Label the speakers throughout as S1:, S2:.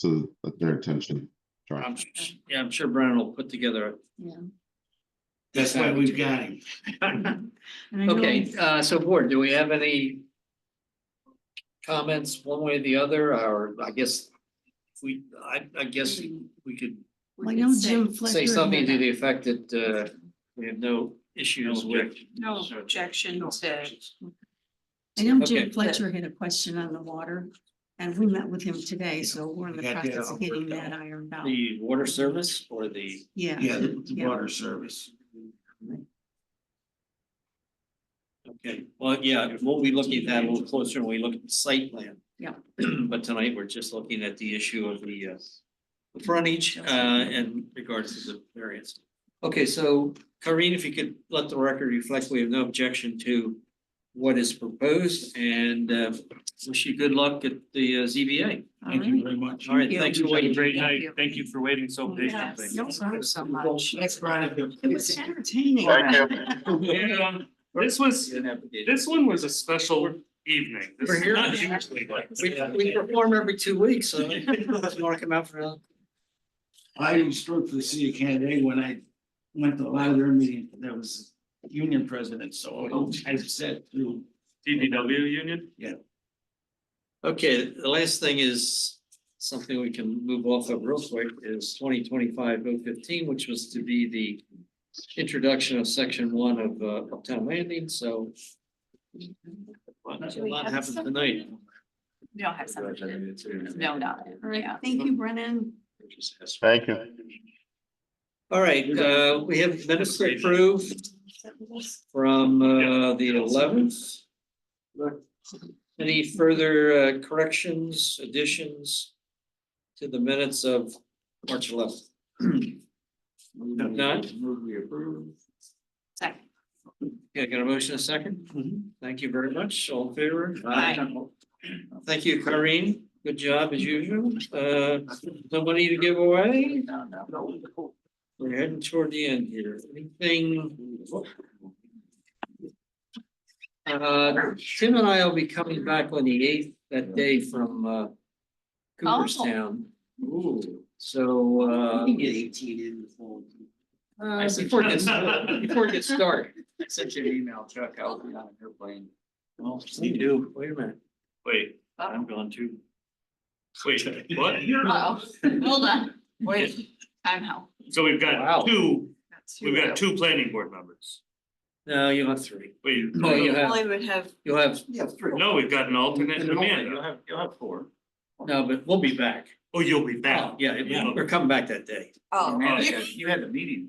S1: to their attention.
S2: I'm, s- yeah, I'm sure Brennan will put together.
S3: Yeah.
S4: That's why we've got him.
S3: And I know-
S2: Okay, uh, so board, do we have any? Comments one way or the other, or I guess. if We, I, I guess we could
S3: Well, I know Jim Fletcher.
S2: say something to
S3: had-
S2: the effect that, uh, we have no issues with.
S5: No objection to,
S3: I know Jim
S2: Okay.
S3: Fletcher had a question on the water, and we met with him today, so we're in the
S4: We got that
S3: process
S4: all
S3: of getting
S4: worked out.
S3: that ironed out.
S2: The water service or the,
S3: Yeah.
S4: Yeah, the the
S3: Yeah.
S4: water service.
S2: okay, well, yeah, we'll be looking at that a little closer when we look at the site plan.
S3: Yeah.
S2: But tonight, we're just looking at the issue of the, uh, the frontage, uh, in regards to the variance. Okay, so Karine, if you could let the record reflect, we have no objection to what is proposed and, uh, wish you good luck at the uh, ZBA.
S4: Thank you very much.
S2: All right,
S3: you.
S2: thanks for waiting.
S6: Great
S3: Thank
S6: night.
S3: you.
S6: Thank you for waiting so
S3: Yes.
S6: patiently.
S3: No problem so much.
S4: Thanks, Brian.
S3: It was entertaining.
S1: Thank
S6: And, um, This was, this one was a special evening. This
S2: We're
S6: is
S2: here.
S6: not usually like.
S2: We, we perform every two weeks, so if you wanna come out for a,
S4: I was struck for the city of Canada when I went to a lot of their meetings, that was union president, so I said through.
S6: DPW union?
S2: okay, the last thing is something we can move off of real quick is twenty twenty-five oh fifteen, which was to be the introduction of section one of uh, Uptown Landing, so a lot-
S5: Do
S2: a
S5: we
S2: lot
S5: have
S2: happened
S5: something?
S2: tonight.
S5: we don't have something, no, no,
S3: All right,
S5: yeah.
S3: thank you, Brennan.
S1: Thank you.
S2: All right, uh, we have minutes to approve from uh, the eleventh. Any further uh, corrections, additions to the minutes of March eleventh? If not,
S5: Second.
S2: yeah, got a motion a second? Thank you very much. All in favor?
S5: Aye.
S2: Thank you, Karine. Good job as usual. Uh, somebody to give away? We're heading toward the end here. Anything? Uh, Tim and I will be coming back on the eighth that day from uh Cooperstown. So uh.
S4: eighteen in the fall.
S2: Uh, before it gets, before it gets dark. Sent you an email, Chuck, I'll be on an airplane. Well, you do, wait a minute,
S6: Wait,
S2: I'm going too.
S6: wait, what?
S5: Oh, hold on, wait, time out.
S6: So we've
S2: Wow.
S6: got two,
S5: That's
S6: we've got two planning board members.
S2: No, you have three.
S6: Wait,
S2: No, you
S5: Well,
S2: have,
S5: I would have,
S2: you'll have,
S6: no, we've got an alternate and
S2: You'll
S6: Amanda. You'll have four.
S2: no, but we'll be back.
S6: Oh, you'll be back.
S2: Yeah,
S6: Yeah.
S2: we're coming back that day.
S5: oh.
S6: Amanda,
S5: you-
S6: You had a meeting.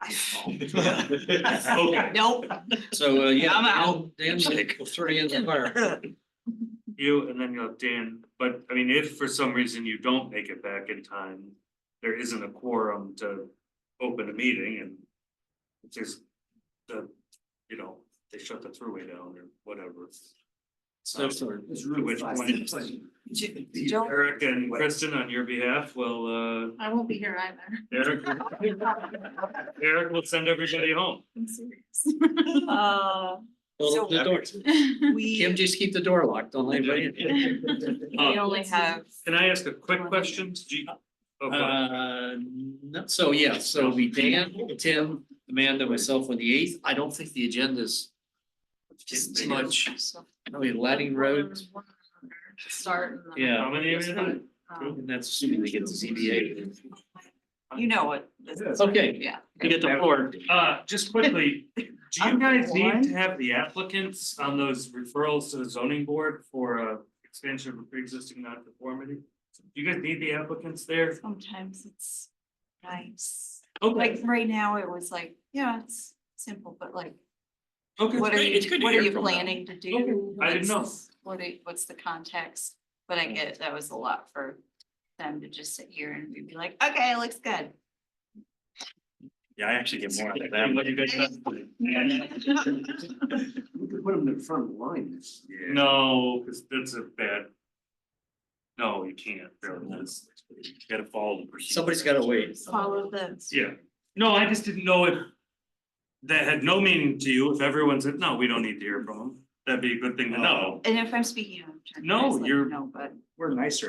S6: Okay,
S5: Nope,
S2: So, uh, yeah.
S5: I'm out.
S2: Dan, Dan, we'll throw you in the fire.
S6: you and then you'll have Dan, but I mean, if for some reason you don't make it back in time, there isn't a quorum to open a meeting and it's just the, you know, they shut the throughway down or whatever.
S2: So, sorry.
S4: It's really.
S6: Which one is it?
S5: J- Joe,
S6: Eric and Kristen, on your behalf, will, uh,
S5: I won't be here either.
S6: Eric, Eric will send everybody home.
S5: I'm serious. Uh,
S2: Well, the door- Kim,
S5: we,
S2: just keep the door locked, don't let anybody in.
S6: Uh,
S5: we only have,
S6: Can I ask a quick question? Do you- oh, okay.
S2: Uh, no, so yeah, so it'll be Dan, Tim, Amanda, myself on the eighth. I don't think the agenda's as much. I mean, Ladding Road,
S5: Start. and then-
S2: yeah.
S6: How many are there?
S5: Um,
S2: and that's assuming they get the ZBA.
S5: You know what, this is,
S2: Okay,
S5: yeah.
S2: you get the floor.
S6: Uh, just quickly, do you
S5: I'm
S6: guys
S5: gonna
S6: need to have the applicants on those referrals to the zoning board for a expansion of a pre-existing non-conformity? Do you guys need the applicants there?
S5: Sometimes it's nice. Like
S6: Okay,
S5: right now, it was like, yeah, it's simple, but like,
S6: okay,
S5: what are
S6: great. it's
S5: you,
S6: good to
S5: what are
S6: hear
S5: you
S6: from them.
S5: planning to do?
S6: I didn't know.
S5: What's- What are- what's the context? But I get it, that was a lot for them to just sit here and we'd be like, okay, it looks good.
S6: Yeah, I actually get more out of that.
S4: We could put them in front of the line. It's-
S6: No, because that's a bad. No, you can't, really, that's, you gotta follow the procedure.
S2: Somebody's gotta wait.
S5: Follow the.
S6: Yeah, no, I just didn't know if. That had no meaning to you, if everyone said, no, we don't need to
S2: Oh.
S6: hear from them, that'd be a good thing to know.
S5: And if I'm speaking. out of turn,
S6: No,
S5: guys let me
S6: you're-
S5: know, but.
S6: We're nicer